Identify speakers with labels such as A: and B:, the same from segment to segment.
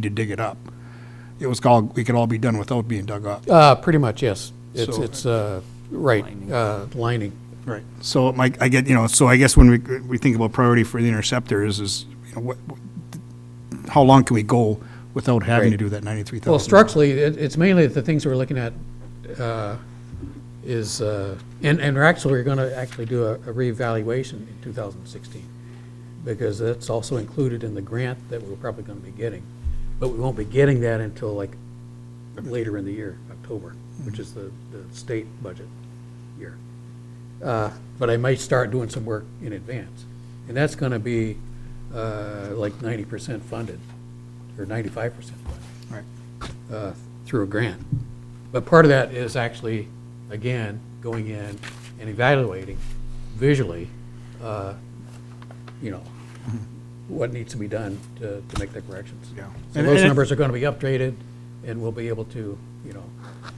A: need to dig it up. It was called, we could all be done without being dug up.
B: Uh, pretty much, yes. It's,
A: So-
B: it's, uh, right, uh, lining.
A: Right. So my, I get, you know, so I guess when we, we think about priority for the interceptors is, you know, what, how long can we go without having to
B: Right.
A: do that ninety-three thousand?
B: Well, structurally, it, it's mainly the things we're looking at, uh, is, uh, and, and we're actually, we're gonna actually do a a reevaluation in two thousand sixteen. Because that's also included in the grant that we're probably gonna be getting. But we won't be getting that until like later in the year, October, which is the, the state budget year. Uh, But I might start doing some work in advance. And that's gonna be, uh, like ninety percent funded, or ninety-five percent funded
A: Right.
B: uh, through a grant. But part of that is actually, again, going in and evaluating visually, uh, you know, what needs to be done to to make the corrections.
A: Yeah.
B: So
A: And-
B: those
A: and it-
B: numbers are going to be updated, and we'll be able to, you know,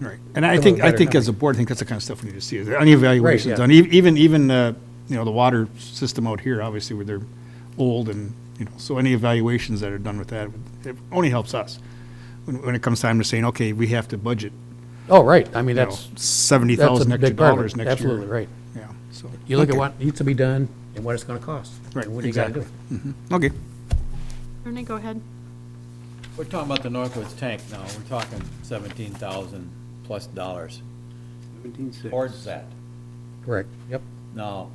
A: Right, and I
B: Come
A: think,
B: up with
A: I
B: better
A: think as a board, I think that's the kind of stuff we need to see, is there any evaluations
B: yeah.
A: on, e- even, even, uh, you know, the water system out here, obviously, where they're old and, you know, so any evaluations that are done with that, it only helps us. When, when it comes time to saying, okay, we have to budget,
B: oh, right, I mean,
A: you know,
B: that's,
A: seventy
B: that's a
A: thousand extra
B: big part of
A: dollars
B: it.
A: next year.
B: Absolutely, right.
A: Yeah, so.
B: You look at
A: okay.
B: what needs to be done and what it's going to cost.
A: Right,
B: and what you gotta do.
A: exactly. Okay,
C: Ernie, go ahead.
D: We're talking about the Northwoods tank now, we're talking seventeen thousand plus dollars towards that.
B: Correct, yep.
D: Now,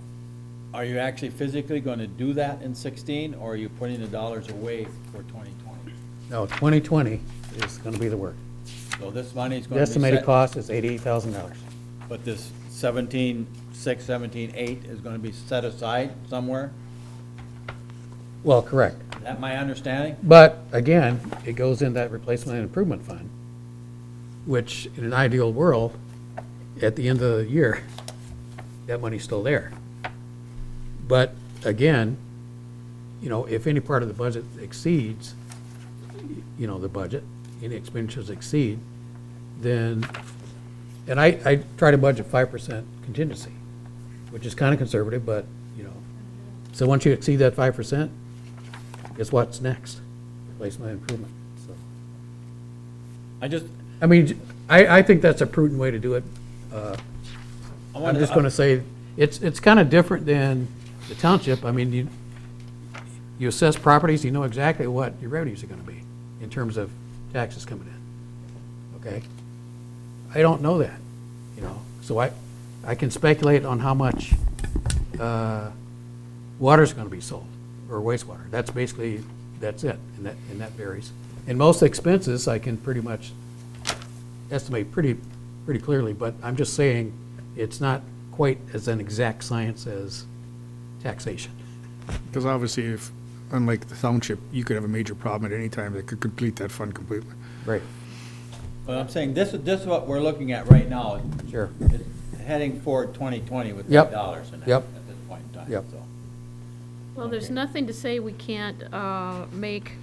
D: are you actually physically gonna do that in sixteen, or are you putting the dollars away for twenty twenty?
B: Now, 2020 is going to be the work.
D: So this money's
B: The
D: gonna be
B: estimated
D: set,
B: cost is $88,000.
D: but this seventeen, six, seventeen, eight is gonna be set aside somewhere?
B: Well, correct.
D: Is that my understanding?
B: But again, it goes in that replacement and improvement fund, which in an ideal world, at the end of the year, that money's still there. But again, you know, if any part of the budget exceeds, you know, the budget, any expenditures exceed, then, and I, I try to budget five percent contingency, which is kind of conservative, but, you know. So once you exceed that five percent, is what's next, replacement improvement, so.
D: I just,
B: I mean, I, I think that's a prudent way to do it.
D: I
B: I'm
D: wanted,
B: just gonna
D: to-
B: say, it's, it's kind of different than the township, I mean, you, you assess properties, you know exactly what your revenues are gonna be in terms of taxes coming in, okay? I don't know that, you know, so I, I can speculate on how much, uh, water's gonna be sold, or wastewater, that's basically, that's it, and that, and that varies. And most expenses, I can pretty much estimate pretty, pretty clearly, but I'm just saying, it's not quite as an exact science as taxation.
E: Because obviously, if, unlike the township, you could have a major problem at any time that could complete that fund completely.
B: Right.
D: but I'm saying, this, is this is what we're looking at right now.
B: Sure.
D: It's Heading for twenty twenty with the
B: Yep.
D: dollars in it
B: Yep.
D: at this point in time,
B: Yep.
D: so.
C: Well, there's
D: Okay.
C: nothing to say we can't uh, make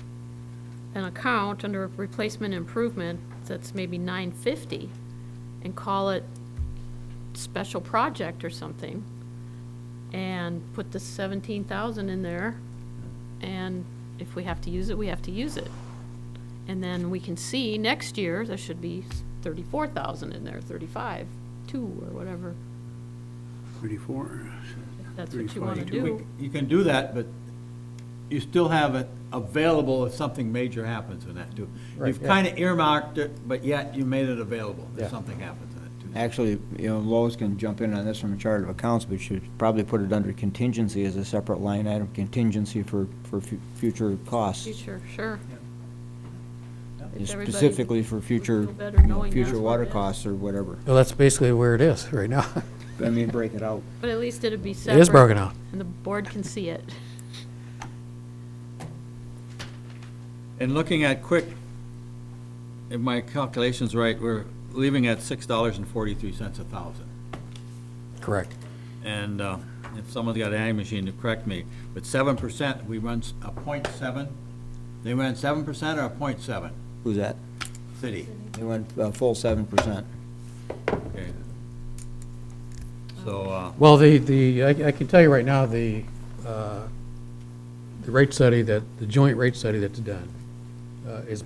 C: an account under replacement improvement that's maybe 950 and call it special project or something and put the 17,000 in there. And if we have to use it, we have to use it. And then we can see next year, there should be 34,000 in there, 35, 2 or whatever. 34. That's what you want to do.
D: We- You can do that, but you still have it available if something major happens in that, too.
B: Right,
D: You've
B: yeah.
D: kind of earmarked it, but yet you made it available
B: Yeah.
D: if something happens in it, too.
F: Actually, you know, Lois can jump in on this from a chart of accounts, but should probably put it under contingency as a separate line item, contingency for, for fu- future costs.
C: Future, sure. If everybody
F: Specifically for
C: would
F: future,
C: feel better
F: you know,
C: knowing
F: future
C: that's what
F: water
C: it is.
F: costs or whatever.
B: Well, that's basically where it is right now.
F: I mean, break it out.
C: But at least it'd be separate.
B: It is broken out.
C: And the board can see it.
D: And looking at quick, if my calculation's right, we're leaving at six dollars and forty-three cents a thousand.
B: Correct.
D: And uh, if someone's got an ag machine to correct me, but seven percent, we run s- a point seven? They ran seven percent or a point seven?
F: Who's that?
D: City,
F: They went a full seven percent.
D: okay. So, uh,
B: Well, the, the, I I can tell you right now, the, uh, the rate study that, the joint rate study that's done uh, is